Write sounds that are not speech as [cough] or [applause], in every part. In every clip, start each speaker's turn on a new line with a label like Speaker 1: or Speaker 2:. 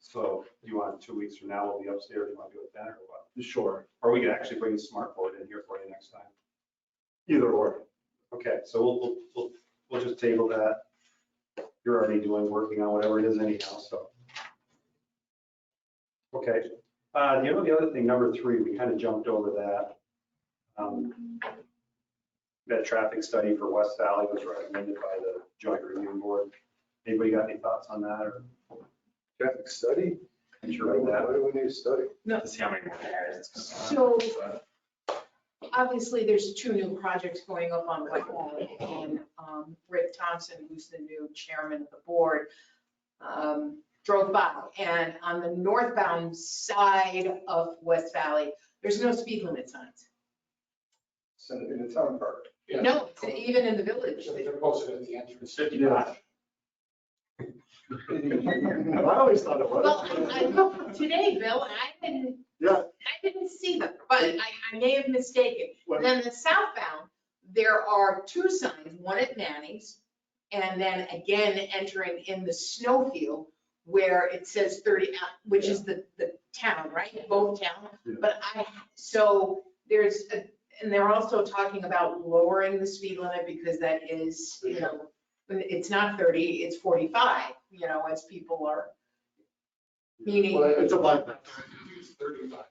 Speaker 1: So you want two weeks from now, we'll be upstairs, you want to do it then or what?
Speaker 2: Sure.
Speaker 1: Or we could actually bring the smart board in here for you next time.
Speaker 2: Either or.
Speaker 1: Okay, so we'll, we'll, we'll, we'll just table that. You're already doing, working on whatever it is anyhow, so. Okay, uh, you know, the other thing, number three, we kind of jumped over that. Um, That traffic study for West Valley was recommended by the joint review board. Anybody got any thoughts on that or
Speaker 2: Traffic study?
Speaker 1: sure about that?
Speaker 2: Why do we need a study?
Speaker 3: To see how many more hairs.
Speaker 4: So obviously, there's two new projects going up on White Valley, and um, Rick Thompson, who's the new chairman of the board, um, drove by. And on the northbound side of West Valley, there's no speed limit signs.
Speaker 5: Send it in the town
Speaker 6: [laughs]
Speaker 5: park.
Speaker 4: No, it's even in the village.
Speaker 5: They're posted at the entrance.
Speaker 1: Yeah.
Speaker 2: I always thought it
Speaker 4: Well, I
Speaker 2: was.
Speaker 4: looked today, Bill, and I didn't,
Speaker 2: Yeah.
Speaker 4: I didn't see them, but I I may have mistaken.
Speaker 2: when-
Speaker 4: Then the southbound, there are two signs, one at Manny's, and then again entering in the snowfield where it says 30, uh, which is the, the town, right? Both town.
Speaker 2: Yeah.
Speaker 4: But I, so there's, a- and they're also talking about lowering the speed limit because that is, you know, it's not 30, it's 45, you know, as people are meaning,
Speaker 5: Well,
Speaker 2: It's a bypass.
Speaker 5: It's Thirty-five.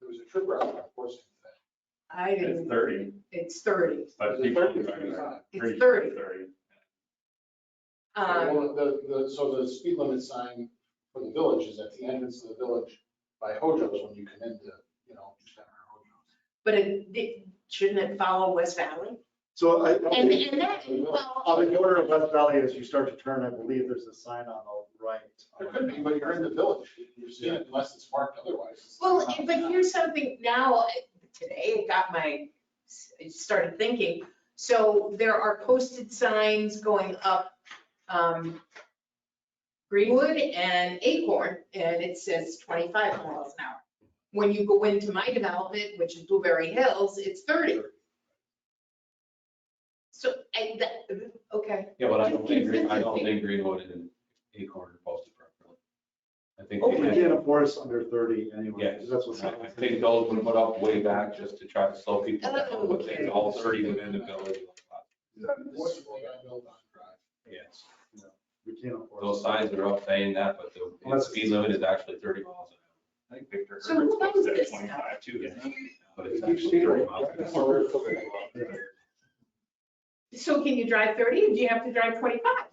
Speaker 5: There was a trip route, of course.
Speaker 4: I
Speaker 3: It's
Speaker 4: didn't,
Speaker 3: thirty,
Speaker 4: it's 30,
Speaker 5: There's
Speaker 3: but
Speaker 5: a
Speaker 3: people. are
Speaker 5: 30,
Speaker 3: driving there.
Speaker 4: it's 30.
Speaker 3: Thirty.
Speaker 4: Um,
Speaker 5: Well, The, the, so the speed limit sign for the village is at the entrance of the village by Hojo's when you come into, you know, Center Hojo's.
Speaker 4: But it, it- shouldn't it follow West Valley?
Speaker 2: So I.
Speaker 4: And, and that, well,
Speaker 2: On the corner of West Valley, as you start to turn, I believe there's a sign on the right.
Speaker 5: There could be, but you're in the village. You're seeing it unless it's marked otherwise.
Speaker 4: well, but here's something now, today it got my, I started thinking. So there are posted signs going up, um, Greenwood and Acorn, and it says twenty-five miles an hour. When you go into my development, which is Blueberry Hills, it's thirty. So, I, that, okay.
Speaker 7: Yeah, but I don't think, Green- I don't think Greenwood and Acorn are posted properly. I think,
Speaker 4: Oh,
Speaker 2: Hopefully
Speaker 7: they
Speaker 2: you
Speaker 7: had-
Speaker 2: can't enforce under thirty anyway,
Speaker 7: Yeah.
Speaker 2: because that's what's
Speaker 7: I
Speaker 2: happening.
Speaker 7: think those were put up way back just to try to slow people down, but
Speaker 4: Oh, Okay.
Speaker 7: it's all thirty within the village.
Speaker 5: This is what I built on Drive.
Speaker 7: Yes,
Speaker 2: We can't enforce.
Speaker 7: those signs are up saying that, but the the speed limit is actually thirty miles an hour,
Speaker 3: I think Victor
Speaker 4: So
Speaker 3: Herbert's
Speaker 4: who owns
Speaker 3: posted at
Speaker 4: this
Speaker 3: twenty-five too, isn't it?
Speaker 7: but it's
Speaker 5: Keep
Speaker 7: actually
Speaker 5: speed
Speaker 7: thirty
Speaker 5: limit.
Speaker 7: miles an
Speaker 5: That's
Speaker 7: hour.
Speaker 5: where we're looking at.
Speaker 4: So can you drive thirty? Do you have to drive twenty-five?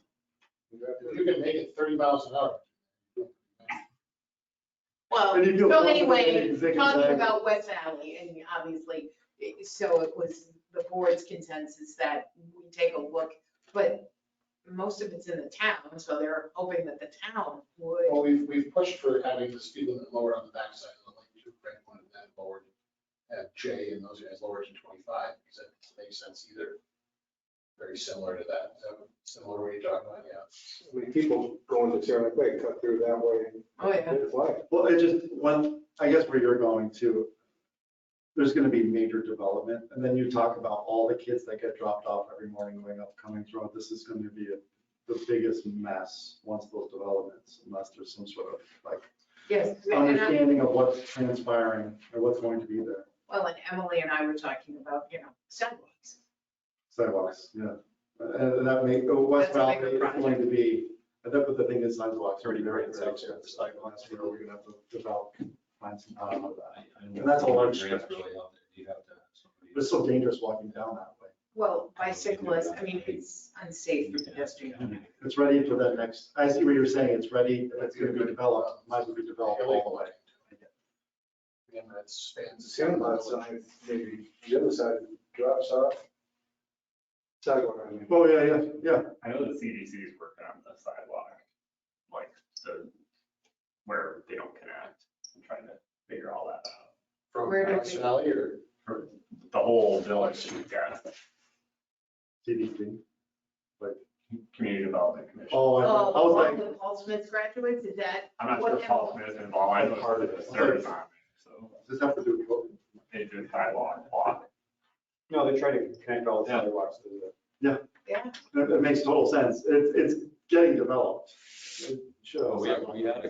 Speaker 5: If You can make it thirty miles an hour.
Speaker 4: Well,
Speaker 2: And you do-
Speaker 4: so anyway,
Speaker 2: Zigzag.
Speaker 4: talking about West Valley, and obviously, it- so it was the board's consensus that we take a look, but most of it's in the town, so they're hoping that the town would.
Speaker 3: Oh,
Speaker 5: Well, we've, we've pushed for having the speed limit lower on the backside of the lane, too, Greg wanted that lowered at J and those guys lowered to twenty-five, because that doesn't make sense either. Very similar to that, Is that similar what you're talking about, yeah.
Speaker 6: many people going to Saranac Lake, cut through that way and
Speaker 4: Oh, yeah.
Speaker 6: it's like,
Speaker 2: Well, it just, one, I guess where you're going to, there's gonna be major development, and then you talk about all the kids that get dropped off every morning going up Cummings Road, this is gonna be a- the biggest mess once those developments, unless there's some sort of like
Speaker 4: Yes. and uh, I-
Speaker 2: understanding of what's transpiring or what's going to be there,
Speaker 4: Well, and Emily and I were talking about, you know, sidewalks.
Speaker 2: sidewalks, yeah. And that may, oh, West
Speaker 4: That's a
Speaker 2: Valley
Speaker 4: bigger
Speaker 2: is
Speaker 4: project.
Speaker 2: going to be, and that, but the thing is sidewalks already very,
Speaker 7: It's
Speaker 2: very,
Speaker 7: actually-
Speaker 2: sidewalks, where we're gonna have to develop, find some time of that.
Speaker 7: I- I don't
Speaker 2: And that's a large
Speaker 7: think Greenwood's
Speaker 2: stretch.
Speaker 7: Really out there, you have to have somebody.
Speaker 2: It's so dangerous walking down that way.
Speaker 4: Well, bicyclists, I mean, it's unsafe for pedestrians.
Speaker 2: It's ready for that next, I see what you're saying, it's ready, it's gonna be developed, might as well be developed all the way.
Speaker 5: Again, that spans.
Speaker 6: the sand lot side, maybe the other side drops off. Sidewalk, I mean.
Speaker 2: Oh, yeah, yeah, yeah.
Speaker 3: I know the CDC is working on the sidewalk, like the, where they don't connect, I'm trying to figure all that out.
Speaker 5: From
Speaker 4: Where do they-
Speaker 5: Madison Alley or
Speaker 3: For the whole village, we've got
Speaker 2: CDC.
Speaker 3: community development commission.
Speaker 2: Oh, I thought- I
Speaker 4: Oh,
Speaker 2: was
Speaker 4: one of
Speaker 2: like,
Speaker 4: the Paul Smith graduates, is that?
Speaker 3: I'm not sure
Speaker 4: what
Speaker 3: if Paul Smith is involved, I know Oh, part of this, they're not, so
Speaker 2: does this have to do with COVID?
Speaker 3: they do sidewalk block.
Speaker 1: No, they're trying to connect all the sidewalks to the.
Speaker 4: Yeah.
Speaker 2: It, it makes total sense, it's, it's getting developed. It should-
Speaker 3: Oh,
Speaker 7: So Oh, we have- we had a